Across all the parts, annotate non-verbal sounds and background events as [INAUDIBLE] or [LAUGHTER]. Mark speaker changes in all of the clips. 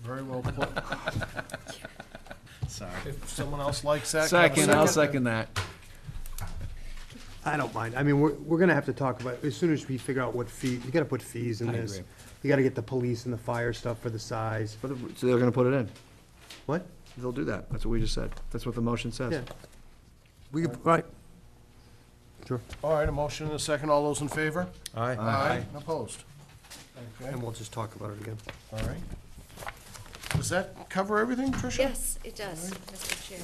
Speaker 1: Very well put.
Speaker 2: Sorry.
Speaker 1: If someone else likes that. can I have a
Speaker 3: Second, I'll second that.
Speaker 4: I don't mind. I mean, we're, we're gonna have to talk about, as soon as we figure out what fee, you gotta put fees in
Speaker 3: I
Speaker 4: this.
Speaker 3: agree.
Speaker 4: You gotta get the police and the fire stuff for the size.
Speaker 5: But, so they're gonna put it in.
Speaker 4: What?
Speaker 5: They'll do that. That's what we just said. That's what the motion
Speaker 4: Yeah.
Speaker 5: says.
Speaker 4: We, could- right. Sure.
Speaker 1: All right, a motion and a second. All those in favor?
Speaker 4: Aye.
Speaker 1: And Opposed? Okay,
Speaker 4: And we'll just talk about it again.
Speaker 1: all right. Does that cover everything, Tricia?
Speaker 6: Yes, it does, Mr. Chair.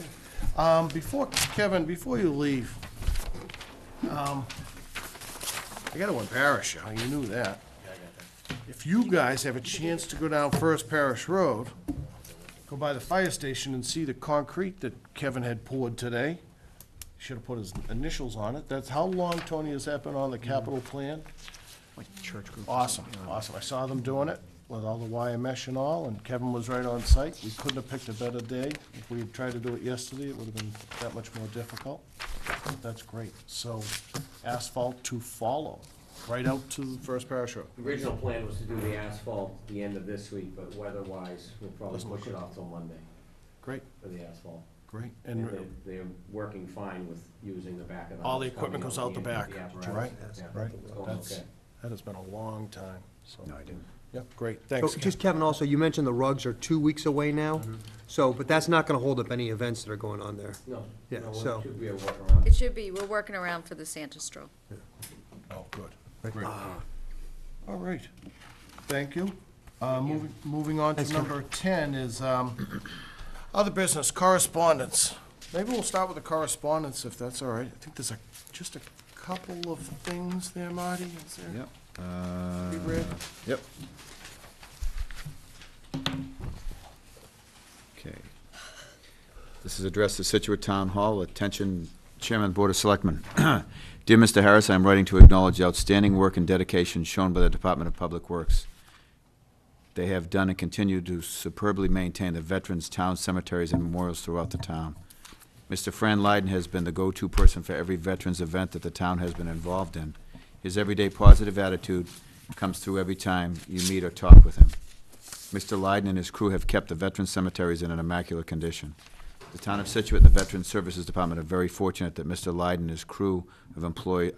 Speaker 1: Um, before, Kevin, before you leave, um, I gotta embarrass you, you knew that. If you guys have a chance to go down First Parish Road, go by the fire station and see the concrete that Kevin had poured today, should've put his initials on it, that's, how long, Tony, has that been on the capital plan?
Speaker 5: Like church group.
Speaker 1: Awesome, awesome. I saw them doing it with all the wire mesh and all, and Kevin was right on site. We couldn't have picked a better day. If we had tried to do it yesterday, it would have been that much more difficult. That's great. So asphalt to follow, right out to the First Parish Road.
Speaker 7: The original plan was to do the asphalt the end of this week, but weather-wise, we'll probably
Speaker 1: Doesn't look
Speaker 7: push it
Speaker 1: good.
Speaker 7: off till Monday
Speaker 1: Great,
Speaker 7: for the asphalt.
Speaker 1: great.
Speaker 7: And they're,
Speaker 1: And
Speaker 7: they're working fine with using the back of the.
Speaker 1: all the
Speaker 7: house,
Speaker 1: equipment
Speaker 7: coming
Speaker 1: goes out the back,
Speaker 7: end of the
Speaker 1: right?
Speaker 7: apparatus. Yeah,
Speaker 1: Right.
Speaker 7: it's going
Speaker 1: That's,
Speaker 7: okay.
Speaker 1: that has been a long time, so.
Speaker 3: No, I didn't.
Speaker 1: Yep, great.
Speaker 4: So
Speaker 1: Thanks, Kevin.
Speaker 4: just Kevin, also, you mentioned the rugs are two weeks away now, so, but that's not gonna hold up any events that are going on there.
Speaker 7: No,
Speaker 4: Yeah,
Speaker 7: no,
Speaker 4: so-
Speaker 7: it should be a
Speaker 6: It
Speaker 7: workaround.
Speaker 6: should be, we're working around for the Santa stroll.
Speaker 1: Oh, good, great. All right, thank you. Uh, moving, moving on to
Speaker 4: Thanks, Kevin.
Speaker 1: number ten is, um, other business correspondence. Maybe we'll start with the correspondence, if that's all right. I think there's a, just a couple of things there, Marty, is there?
Speaker 2: Yep. Uh,
Speaker 1: Be read.
Speaker 2: Yep. Okay. This is addressed to Situate Town Hall. Attention Chairman, Board of Selectmen. [CLEARS THROAT] Dear Mr. Harris, I am writing to acknowledge the outstanding work and dedication shown by the Department of Public Works. They have done and continue to superbly maintain the veterans' town cemeteries and memorials throughout the town. Mr. Fran Lyden has been the go-to person for every veterans event that the town has been involved in. His everyday positive attitude comes through every time you meet or talk with him. Mr. Lyden and his crew have kept the veteran cemeteries in an immaculate condition. The town of Situate and the Veteran Services Department are very fortunate that Mr. Lyden and his crew of employ,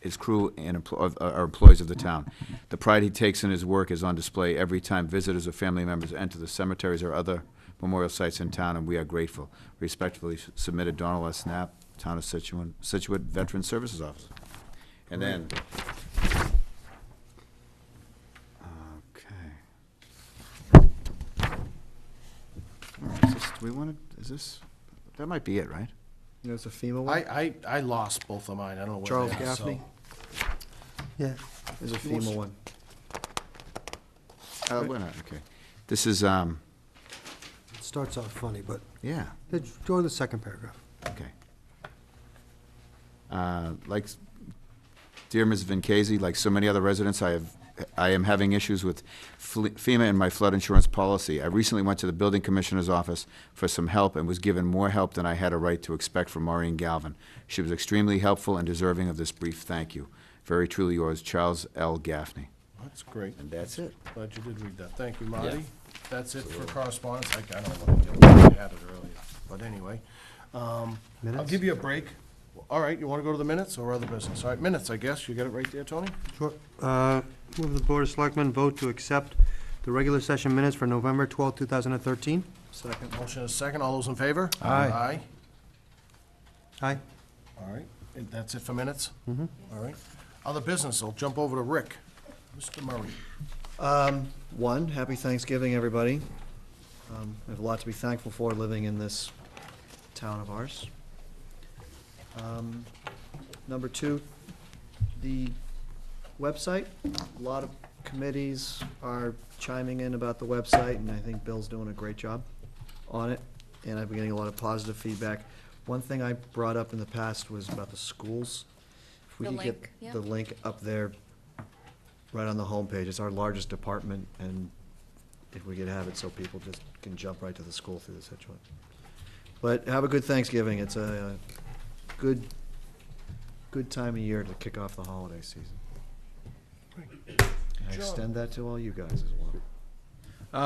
Speaker 2: his crew and empl- of- are employees of the town. The pride he takes in his work is on display every time visitors or family members enter the cemeteries or other memorial sites in town, and we are grateful. Respectfully submitted, Donald S. Knapp, Town of Situate, Situate Veteran Services Officer. And then. Okay. All right, is this- Do we want to, is this, that might be it, right?
Speaker 5: You know, it's a FEMA one.
Speaker 1: I, I, I lost both of mine, I don't know where
Speaker 5: Uh, Charles
Speaker 1: they are, so-
Speaker 5: Gaffney.
Speaker 4: Yeah.
Speaker 5: There's a FEMA one.
Speaker 2: Uh, wait a minute, okay. This is, um,
Speaker 4: It starts off funny, but,
Speaker 2: yeah.
Speaker 4: go to the second paragraph.
Speaker 2: Okay. Uh, Like, s- dear Ms. Vincasey, like so many other residents, I have, I am having issues with fle- FEMA and my flood insurance policy. I recently went to the building commissioner's office for some help and was given more help than I had a right to expect from Maureen Galvin. She was extremely helpful and deserving of this brief thank you. Very truly yours, Charles L. Gaffney.
Speaker 1: That's great.
Speaker 2: And that's it.
Speaker 1: Glad you did read that. Thank you, Marty.
Speaker 2: Yeah.
Speaker 1: That's it for correspondence. I I don't know what I did. I had it earlier, but anyway. um, I'll
Speaker 4: Minutes?
Speaker 1: give you a break. All right, you want to go to the minutes or other business? All right, minutes, I guess. You got it right there, Tony?
Speaker 4: Sure. Uh, Move the Board of Selectmen vote to accept the regular session minutes for November twelfth, two 2013.
Speaker 5: Second.
Speaker 1: Motion is second. All those in favor?
Speaker 5: Aye.
Speaker 1: Aye.
Speaker 4: Aye.
Speaker 1: All right, and that's it for minutes? Mm-hmm. All right. Other business, I'll jump over to Rick. Mr. Murray.
Speaker 5: Um, one, happy Thanksgiving, everybody. Um, we have a lot to be thankful for living in this town of ours. Um, number two, the website. A lot of committees are chiming in about the website, and I think Bill's doing a great job on it, and I've been getting a lot of positive feedback. One thing I brought up in the past was about the schools. If we
Speaker 6: The
Speaker 5: could
Speaker 6: link,
Speaker 5: get
Speaker 6: yeah.
Speaker 5: the link up there, right on the homepage, it's our largest department, and if we could have it so people just can jump right to the school through the Situate. But have a good Thanksgiving, it's a uh, good, good time of year to kick off the holiday season. And I extend that to all you guys as well.